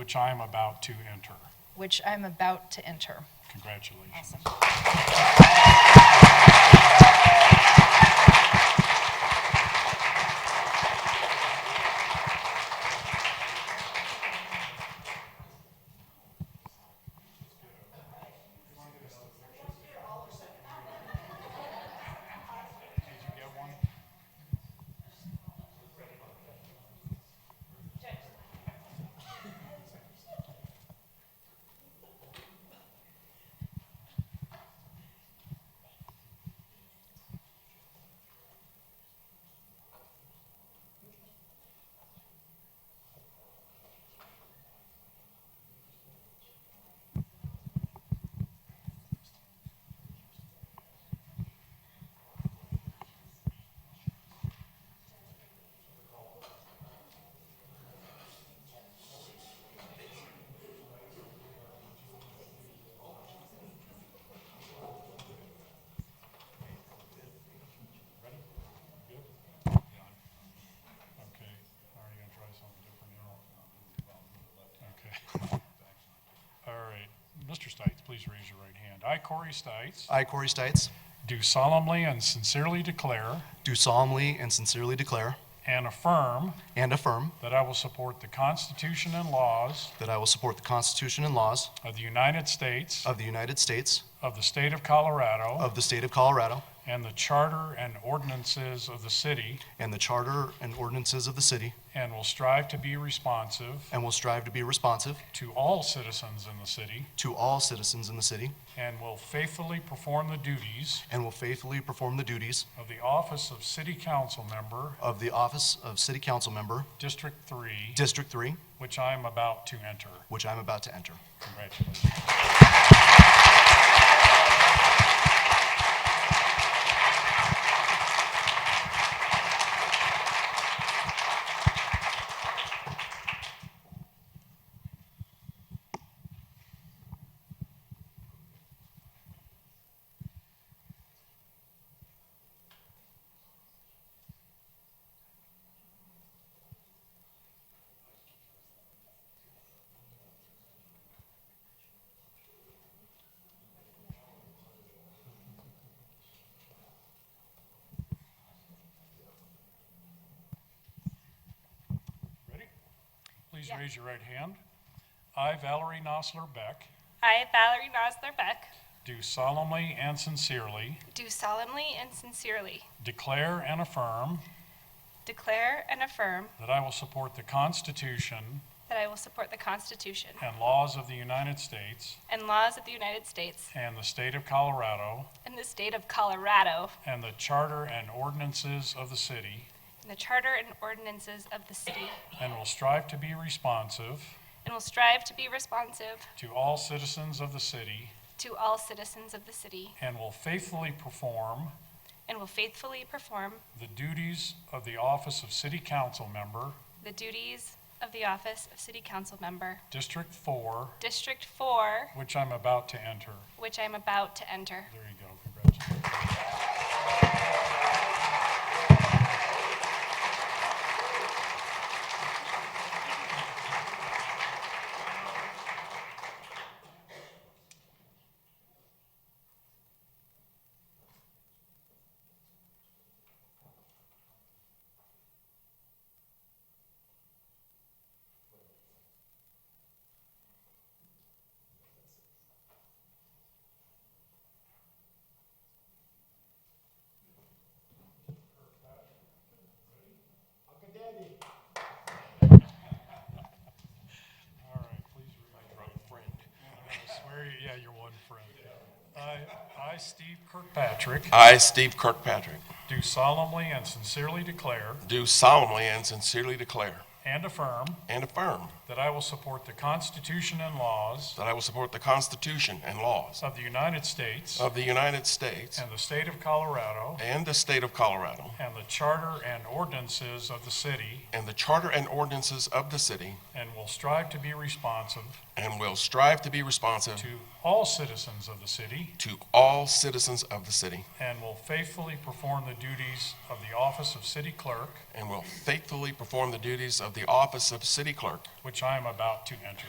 which I am about to enter. which I am about to enter. Congratulations. Awesome. Okay, are you gonna try something different here? Okay. All right, Mr. Stites, please raise your right hand. I, Corey Stites, I, Corey Stites, do solemnly and sincerely declare do solemnly and sincerely declare and affirm and affirm that I will support the Constitution and laws that I will support the Constitution and laws of the United States, of the United States, of the state of Colorado, of the state of Colorado, and the charter and ordinances of the city, and the charter and ordinances of the city, and will strive to be responsive and will strive to be responsive to all citizens in the city, to all citizens in the city, and will faithfully perform the duties and will faithfully perform the duties of the office of city council member, of the office of City Council Member, District 3, District 3, which I am about to enter. which I am about to enter. Congratulations. Ready? Please Yeah. raise your right hand. I, Valerie Nosler Beck, I, Valerie Nosler Beck, do solemnly and sincerely do solemnly and sincerely declare and affirm declare and affirm that I will support the Constitution that I will support the Constitution and laws of the United States and laws of the United States and the state of Colorado and the state of Colorado and the charter and ordinances of the city, and the charter and ordinances of the city, and will strive to be responsive and will strive to be responsive to all citizens of the city, to all citizens of the city, and will faithfully perform and will faithfully perform the duties of the office of city council member, the duties of the office of City Council Member, District 4, District 4, which I'm about to enter. which I am about to enter. There you go, congratulations. All right, please read. My friend. I swear, you- yeah, you're one friend. I, I, Steve Kirkpatrick, I, Steve Kirkpatrick, do solemnly and sincerely declare do solemnly and sincerely declare and affirm and affirm that I will support the Constitution and laws that I will support the Constitution and laws of the United States of the United States and the state of Colorado and the state of Colorado and the charter and ordinances of the city and the charter and ordinances of the city, and will will strive to be responsive and will strive to be responsive to all citizens of the city to all citizens of the city and will faithfully perform the duties of the office of city clerk, and will faithfully perform the duties of the office of city clerk which I am about to enter.